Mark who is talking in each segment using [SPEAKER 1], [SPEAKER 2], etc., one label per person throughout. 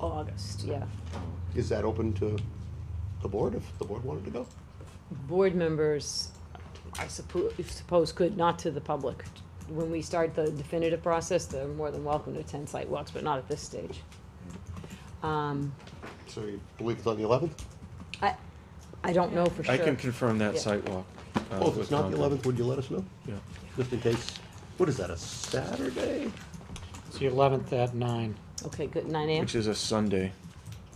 [SPEAKER 1] August, yeah.
[SPEAKER 2] Is that open to the board if the board wanted to go?
[SPEAKER 1] Board members, I suppose, suppose could, not to the public. When we start the definitive process, they're more than welcome to attend site walks, but not at this stage. Um,
[SPEAKER 2] So you believe it's on the eleventh?
[SPEAKER 1] I, I don't know for sure.
[SPEAKER 3] I can confirm that
[SPEAKER 1] Yeah.
[SPEAKER 3] sidewalk. uh,
[SPEAKER 2] Oh, if
[SPEAKER 3] with
[SPEAKER 2] it's not the
[SPEAKER 3] Concom.
[SPEAKER 2] eleventh, would you let us know?
[SPEAKER 3] Yeah.
[SPEAKER 2] Just in case, what is that, a Saturday?
[SPEAKER 4] It's the eleventh at nine.
[SPEAKER 1] Okay, good, nine AM?
[SPEAKER 3] Which is a Sunday,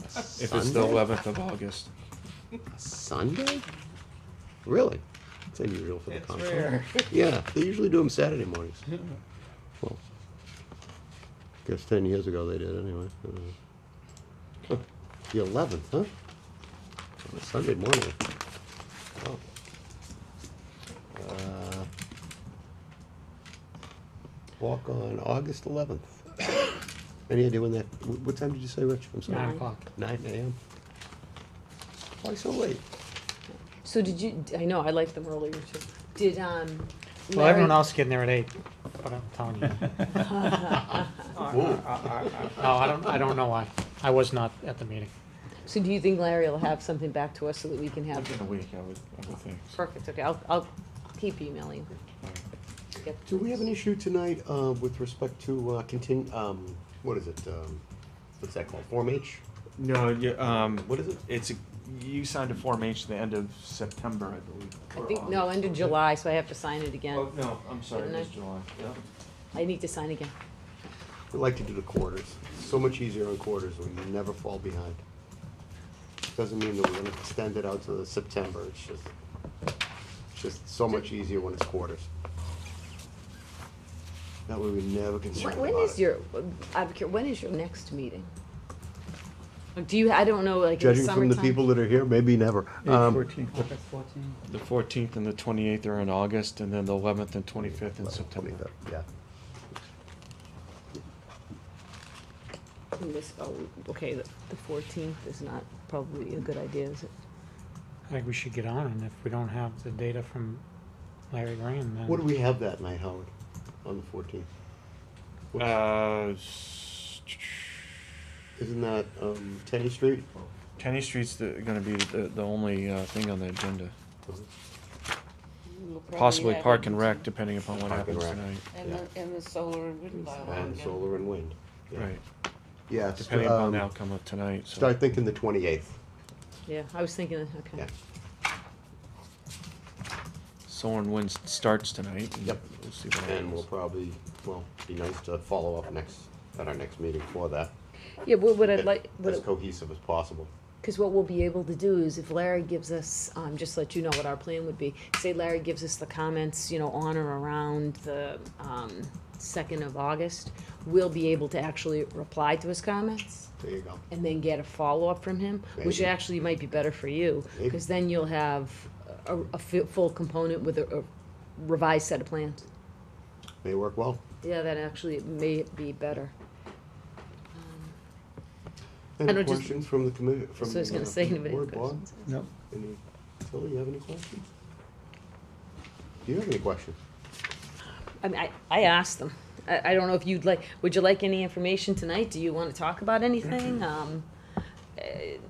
[SPEAKER 3] if it's the
[SPEAKER 2] Sunday?
[SPEAKER 3] eleventh of August.
[SPEAKER 2] Sunday? Really? It's unusual for the Concom. Yeah, they usually do them Saturday mornings. Well, guess ten years ago they did anyway. Uh, huh. The eleventh, huh? On a Sunday morning. Wow. Uh, Walk on August eleventh. Any idea when that, wh- what time did you say, Rich? I'm sorry.
[SPEAKER 4] Nine o'clock.
[SPEAKER 2] Nine AM? Why so late?
[SPEAKER 1] So did you, I know, I liked them earlier too. Did, um,
[SPEAKER 4] Well,
[SPEAKER 1] Larry-
[SPEAKER 4] everyone else is getting there at eight, but I'm telling you. No, I don't, I don't know why. I was not at the meeting.
[SPEAKER 1] So do you think Larry will have something back to us so that we can have?
[SPEAKER 3] Within a week, I would, I would think.
[SPEAKER 1] Perfect, okay, I'll, I'll keep emailing. Get
[SPEAKER 2] Do we have an
[SPEAKER 1] this.
[SPEAKER 2] issue tonight uh, with respect to uh, contin, um, what is it, um, what's that called, Form H?
[SPEAKER 3] No, you, um,
[SPEAKER 2] What is it?
[SPEAKER 3] it's, a- you signed a Form H the end of September, I believe.
[SPEAKER 1] I
[SPEAKER 3] or
[SPEAKER 1] think, no,
[SPEAKER 3] August.
[SPEAKER 1] end of July, so I have to sign it again.
[SPEAKER 3] Oh, no, I'm sorry, it
[SPEAKER 1] Didn't I?
[SPEAKER 3] was July, yeah.
[SPEAKER 1] I need to sign again.
[SPEAKER 2] We like to do the quarters, so much easier on quarters, we never fall behind. Doesn't mean that we're gonna extend it out to the September, it's just, it's just so much easier when it's quarters. That way we never get
[SPEAKER 1] When,
[SPEAKER 2] concerned
[SPEAKER 1] when
[SPEAKER 2] about
[SPEAKER 1] is
[SPEAKER 2] it.
[SPEAKER 1] your, uh, I'm cur- when is your next meeting? Like, Do you, I don't know, like in the
[SPEAKER 2] Judging
[SPEAKER 1] summertime?
[SPEAKER 2] from the people that are here, maybe never. Um,
[SPEAKER 3] The fourteenth and the twenty-eighth are in August, and then the eleventh and twenty-fifth in September.
[SPEAKER 2] Yeah.
[SPEAKER 1] In this- oh, okay, the the fourteenth is not probably a good idea, is it?
[SPEAKER 4] I think we should get on, and if we don't have the data from Larry Graham, then.
[SPEAKER 2] What do we have that night, Howard, on the fourteenth?
[SPEAKER 3] Uh, s-
[SPEAKER 2] Isn't that um, Tenny Street?
[SPEAKER 3] Kenny Street's the, gonna be the, the only, uh, thing on the agenda.
[SPEAKER 1] Uh-huh.
[SPEAKER 3] Possibly Park and Rec, depending upon what
[SPEAKER 2] Park and
[SPEAKER 3] happens
[SPEAKER 2] Rec.
[SPEAKER 3] tonight,
[SPEAKER 5] And the, and the solar and wind
[SPEAKER 2] And
[SPEAKER 5] bylaw.
[SPEAKER 2] solar and wind.
[SPEAKER 3] right,
[SPEAKER 2] Yes. um,
[SPEAKER 3] depending upon the outcome of tonight, so.
[SPEAKER 2] Start thinking the twenty-eighth,
[SPEAKER 1] Yeah, I was thinking, okay.
[SPEAKER 2] yeah.
[SPEAKER 3] Soren wins starts tonight. and
[SPEAKER 2] Yep.
[SPEAKER 3] We'll see what
[SPEAKER 2] And we'll
[SPEAKER 3] happens.
[SPEAKER 2] probably, well, be nice to follow up next, at our next meeting for that.
[SPEAKER 1] Yeah, what, what I'd
[SPEAKER 2] Get
[SPEAKER 1] like, what,
[SPEAKER 2] As cohesive as possible.
[SPEAKER 1] Because what we'll be able to do is if Larry gives us, um, just let you know what our plan would be, say Larry gives us the comments, you know, on or around the, um, second of August, we'll be able to actually reply to his comments
[SPEAKER 2] There you go.
[SPEAKER 1] and then get a follow-up from him, which
[SPEAKER 2] Maybe.
[SPEAKER 1] actually might be better for you,
[SPEAKER 2] Maybe.
[SPEAKER 1] because then you'll have a, a fu- full component with a a revised set of plans.
[SPEAKER 2] May work well.
[SPEAKER 1] Yeah, that actually may be better. I
[SPEAKER 2] Any
[SPEAKER 1] don't just-
[SPEAKER 2] questions from the committee, from?
[SPEAKER 1] So I was
[SPEAKER 2] uh,
[SPEAKER 1] gonna say,
[SPEAKER 2] from the
[SPEAKER 1] anybody have
[SPEAKER 2] board, Bob?
[SPEAKER 1] questions?
[SPEAKER 6] No,
[SPEAKER 2] Any, Tilly, you have any questions? Do you have any questions?
[SPEAKER 1] I mean, I, I asked them. I, I don't know if you'd like, would you like any information tonight? Do you want to talk about
[SPEAKER 2] Mm-hmm.
[SPEAKER 1] anything? Um,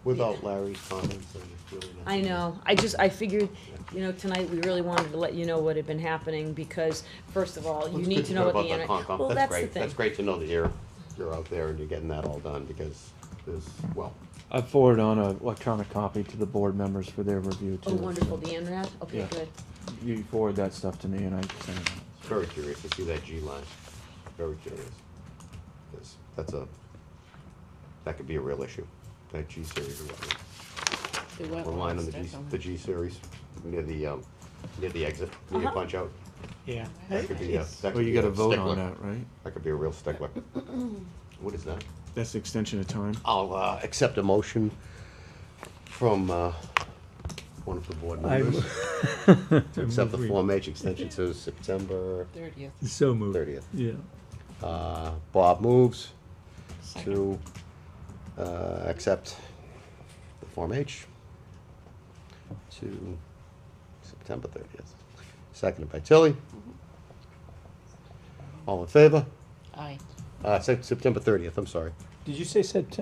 [SPEAKER 2] Without Larry's comments, I really not.
[SPEAKER 1] I know, I just, I figured, you know, tonight, we really wanted to let you know what had been happening, because, first of all,
[SPEAKER 2] Well,
[SPEAKER 1] you
[SPEAKER 2] it's
[SPEAKER 1] need
[SPEAKER 2] good
[SPEAKER 1] to know what
[SPEAKER 2] about
[SPEAKER 1] the.
[SPEAKER 2] that
[SPEAKER 1] inter-
[SPEAKER 2] Concom.
[SPEAKER 1] Well,
[SPEAKER 2] That's
[SPEAKER 1] that's the
[SPEAKER 2] great,
[SPEAKER 1] thing.
[SPEAKER 2] that's great to know that you're, you're out there and you're getting that all done, because there's, well,
[SPEAKER 3] I forward on an electronic copy to the board members for their review too.
[SPEAKER 1] Oh, wonderful, the INRAD, okay,
[SPEAKER 3] Yeah.
[SPEAKER 1] good.
[SPEAKER 3] You forward that stuff to me and I send it.
[SPEAKER 2] it's very curious to see that G line, very curious. Yes, that's a, that could be a real issue, that G series or whatnot.
[SPEAKER 5] The
[SPEAKER 2] The line on the G, the G series, near the, um, near the exit, near the
[SPEAKER 1] Uh-huh.
[SPEAKER 2] punch out,
[SPEAKER 4] Yeah.
[SPEAKER 2] that could be a, that could
[SPEAKER 3] Well, you
[SPEAKER 2] be a
[SPEAKER 3] gotta vote
[SPEAKER 2] stickler.
[SPEAKER 3] on that, right?
[SPEAKER 2] That could be a real stickler. What is that?
[SPEAKER 3] That's the extension of time.
[SPEAKER 2] I'll, uh, accept a motion from, uh, one of the board
[SPEAKER 6] I
[SPEAKER 2] members.
[SPEAKER 6] I
[SPEAKER 2] Except the
[SPEAKER 6] move we-
[SPEAKER 2] Form H extension to September
[SPEAKER 5] Thirtieth.
[SPEAKER 6] So moved.
[SPEAKER 2] 30th.
[SPEAKER 6] Yeah.
[SPEAKER 2] Uh, Bob moves to uh, accept the Form H to September 30th. Seconded by Tilly. All in favor?
[SPEAKER 5] Aye.
[SPEAKER 2] Uh, Sep- September 30th, I'm sorry.
[SPEAKER 6] Did you say September?